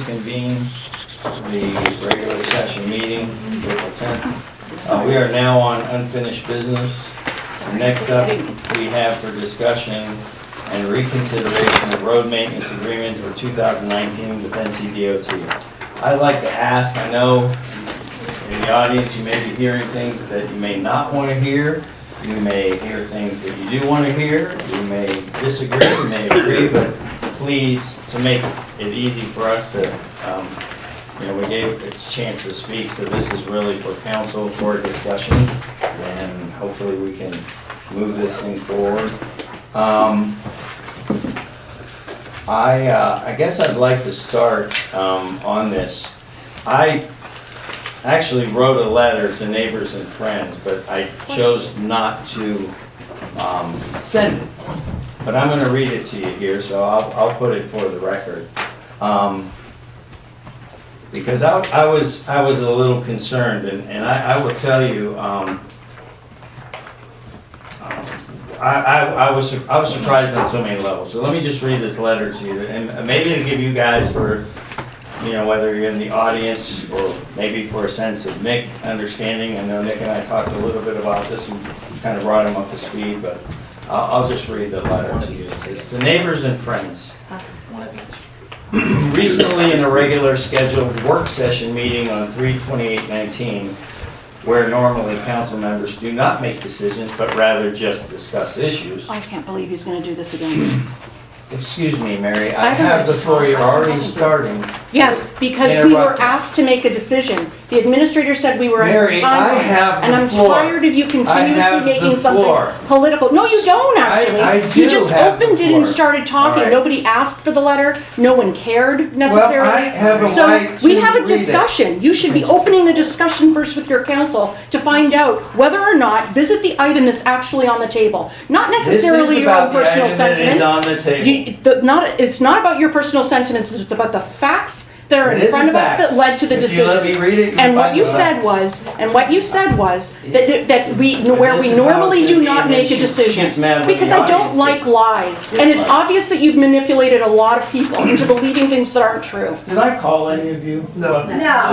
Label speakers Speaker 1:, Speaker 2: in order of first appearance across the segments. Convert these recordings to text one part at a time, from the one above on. Speaker 1: reconvene the regular session meeting, April 10th. Uh, We are now on unfinished business. Next up, we have for discussion and reconsideration of road maintenance agreement for 2019 with NC DOT. I'd like to ask, I know in the audience, you may be hearing things that you may not want to hear. You may hear things that you do want to hear. You may disagree, you may agree, but please, to make it easy for us to, um, you know, we gave a chance to speak, so this is really for council for discussion, and hopefully we can move this thing forward. Um, I, uh, I guess I'd like to start um, on this. I actually wrote a letter to neighbors and friends, but I chose not to um, send it. But I'm going to read it to you here, so I'll, I'll put it for the record. Um, Because I, I was, I was a little concerned, and, and I, I will tell you, um, I, I, I was, sur- I was surprised on so many levels. So let me just read this letter to you, and uh, maybe it'll give you guys for, you know, whether you're in the audience or maybe for a sense of Nick understanding. I know Nick and I talked a little bit about this and kind of brought him up to speed, but I'll, I'll just read the letter to you. It says, "To neighbors and friends, recently in a regular scheduled work session meeting on 3/28/19, where normally council members do not make decisions, but rather just discuss issues,
Speaker 2: I can't believe he's gonna do this again.
Speaker 1: Excuse me, Mary, I
Speaker 2: I don't
Speaker 1: have
Speaker 2: know.
Speaker 1: before you're already starting.
Speaker 2: Yes, because we were
Speaker 1: Interrupted.
Speaker 2: asked to make a decision. The administrator said we were out
Speaker 1: Mary,
Speaker 2: of
Speaker 1: I
Speaker 2: time.
Speaker 1: have
Speaker 2: And
Speaker 1: the
Speaker 2: I'm
Speaker 1: floor.
Speaker 2: tired of you
Speaker 1: have
Speaker 2: continuously
Speaker 1: the
Speaker 2: making
Speaker 1: floor.
Speaker 2: something political. No, you don't,
Speaker 1: I-
Speaker 2: actually.
Speaker 1: I do
Speaker 2: You just
Speaker 1: have the
Speaker 2: opened it
Speaker 1: floor.
Speaker 2: and started
Speaker 1: All
Speaker 2: talking.
Speaker 1: right.
Speaker 2: Nobody asked for the letter. No one cared necessarily.
Speaker 1: Well, I have a right
Speaker 2: So we
Speaker 1: to
Speaker 2: have a
Speaker 1: read it.
Speaker 2: discussion. You should be opening the discussion first with your council to find out whether or not, visit the item that's actually on the table. Not necessarily your own personal sentiments.
Speaker 1: This is about the item that is on the table.
Speaker 2: You, the, not, it's not about your personal sentiments, it's about the facts that are
Speaker 1: It is
Speaker 2: in front of us
Speaker 1: facts.
Speaker 2: that led to the
Speaker 1: If
Speaker 2: decision.
Speaker 1: you let me read it, you'll
Speaker 2: And what
Speaker 1: find
Speaker 2: you
Speaker 1: the
Speaker 2: said
Speaker 1: facts.
Speaker 2: was, and what you said was, that, that we, where
Speaker 1: This
Speaker 2: we
Speaker 1: is how
Speaker 2: normally
Speaker 1: it's
Speaker 2: do
Speaker 1: gonna be,
Speaker 2: not
Speaker 1: and then
Speaker 2: make a
Speaker 1: she
Speaker 2: decision.
Speaker 1: gets mad when
Speaker 2: Because
Speaker 1: the
Speaker 2: I
Speaker 1: audience
Speaker 2: don't like
Speaker 1: gets-
Speaker 2: lies,
Speaker 1: gets
Speaker 2: and it's
Speaker 1: mad.
Speaker 2: obvious that you've manipulated a lot of people into believing things that aren't true.
Speaker 1: Did I call any of you?
Speaker 3: No,
Speaker 4: No.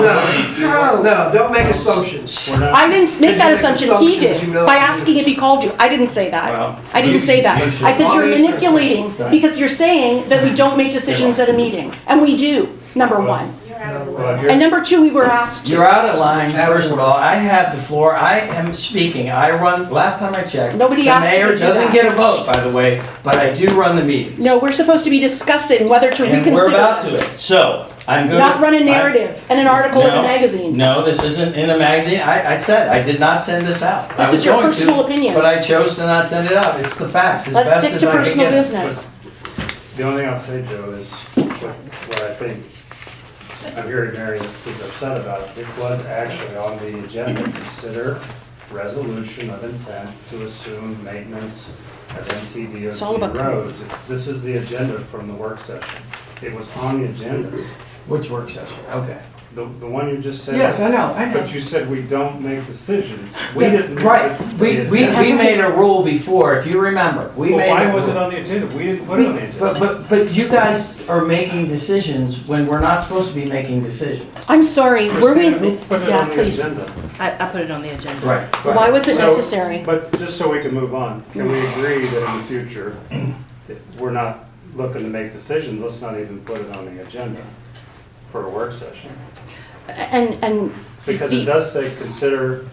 Speaker 3: no, no, don't make assumptions.
Speaker 1: We're not-
Speaker 2: I didn't make that
Speaker 3: Did you make
Speaker 2: assumption, he
Speaker 3: assumptions you
Speaker 2: did,
Speaker 3: know
Speaker 2: by
Speaker 3: you-
Speaker 2: asking if he called you. I didn't say that.
Speaker 1: Well,
Speaker 2: I
Speaker 1: you-
Speaker 2: didn't say that.
Speaker 1: you should-
Speaker 2: I said you're
Speaker 3: I'll answer.
Speaker 2: manipulating,
Speaker 1: Right.
Speaker 2: because you're saying that we don't make decisions at a meeting, and we do, number one.
Speaker 4: You're out of
Speaker 3: Well,
Speaker 4: order.
Speaker 3: you're-
Speaker 2: And number two, we were asked
Speaker 1: You're
Speaker 2: to.
Speaker 1: out of line, first of all. I have the floor. I am speaking. I run, last time I checked.
Speaker 2: Nobody
Speaker 1: the
Speaker 2: asked you to
Speaker 1: mayor
Speaker 2: do
Speaker 1: doesn't
Speaker 2: that.
Speaker 1: get a vote, by the way, but I do run the meetings.
Speaker 2: No, we're supposed to be discussing whether to
Speaker 1: And we're about
Speaker 2: reconsider
Speaker 1: to
Speaker 2: this.
Speaker 1: it. So, I'm going to.
Speaker 2: Not run a narrative and an article in a magazine.
Speaker 1: No, this isn't in a magazine. I, I said, I did not send this out. I
Speaker 2: This
Speaker 1: was
Speaker 2: is your
Speaker 1: going to,
Speaker 2: personal opinion.
Speaker 1: But I chose to not send it out. It's the facts, as
Speaker 2: Let's
Speaker 1: best
Speaker 2: stick
Speaker 1: as
Speaker 2: to
Speaker 1: I can
Speaker 2: personal
Speaker 1: get it.
Speaker 2: business.
Speaker 5: The only thing I'll say, Joe, is what what I think, I'm hearing Mary is upset about. It was actually on the agenda, consider resolution of intent to assume maintenance of
Speaker 2: It's all about-
Speaker 5: NCDOT roads. It's- This is the agenda from the work session. It was on the agenda.
Speaker 1: Which work session? Okay.
Speaker 5: The, the one you just said.
Speaker 1: Yes, I know, I know.
Speaker 5: But you said we don't make decisions. We
Speaker 1: Yeah,
Speaker 5: didn't. make
Speaker 1: Right,
Speaker 5: the
Speaker 1: we, we,
Speaker 5: agenda.
Speaker 1: we made a rule before, if you remember, we
Speaker 5: Well,
Speaker 1: made.
Speaker 5: why
Speaker 1: a
Speaker 5: was it
Speaker 1: rule.
Speaker 5: on the agenda? We didn't put it on the agenda.
Speaker 1: But, but, but you guys are making decisions when we're not supposed to be making decisions.
Speaker 2: I'm sorry, were we,
Speaker 5: Christina, who put it
Speaker 2: yeah,
Speaker 5: on the
Speaker 2: please.
Speaker 5: agenda?
Speaker 6: I, I put it on the agenda.
Speaker 1: Right.
Speaker 2: Why was it
Speaker 5: So-
Speaker 2: necessary?
Speaker 5: But just so we can move on, can we agree that in the future, that we're not looking to make decisions, let's not even put it on the agenda for a work session?
Speaker 2: And, and
Speaker 5: Because it
Speaker 2: The-
Speaker 5: does say, consider,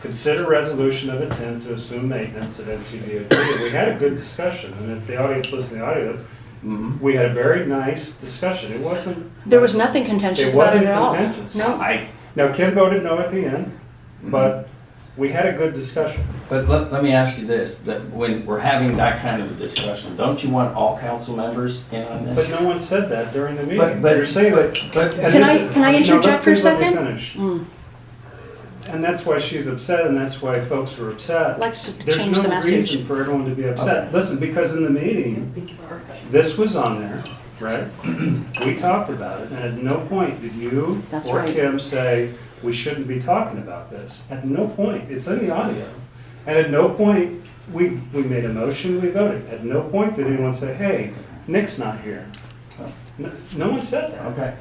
Speaker 5: consider resolution of intent to assume maintenance at NCDOT. And We had a good discussion, and if the audience listened to the audio, we had a very nice discussion. It wasn't.
Speaker 2: there was nothing contentious
Speaker 5: It
Speaker 2: about it
Speaker 5: wasn't
Speaker 2: at all.
Speaker 5: contentious.
Speaker 2: No.
Speaker 1: I,
Speaker 5: Now, Kim voted no at the end,
Speaker 2: Mm-hmm.
Speaker 5: but we had a good discussion.
Speaker 1: but let, let me ask you this, that when we're having that kind of a discussion, don't you want all council members in on
Speaker 5: But
Speaker 1: this?
Speaker 5: no one said that during the meeting.
Speaker 1: But, but.
Speaker 5: You're saying
Speaker 1: but-
Speaker 5: that.
Speaker 1: But.
Speaker 2: Can
Speaker 5: and this-
Speaker 2: I- can I
Speaker 5: no, let-
Speaker 2: interject for a
Speaker 5: please let me
Speaker 2: second?
Speaker 5: finish.
Speaker 2: Mm,
Speaker 5: And that's why she's upset, and that's why folks are upset.
Speaker 2: Likes to
Speaker 5: There's
Speaker 2: change the
Speaker 5: no
Speaker 2: message.
Speaker 5: reason for everyone to be upset. Listen, because in the meeting, this was on there, right? We talked about it, and at no point did you
Speaker 2: That's
Speaker 5: or
Speaker 2: right.
Speaker 5: Kim say, we shouldn't be talking about this. At no point. It's in the audio. And at no point, we, we made a motion, we voted. At no point did anyone say, hey, Nick's not here.
Speaker 7: No- No one said that.
Speaker 5: Okay.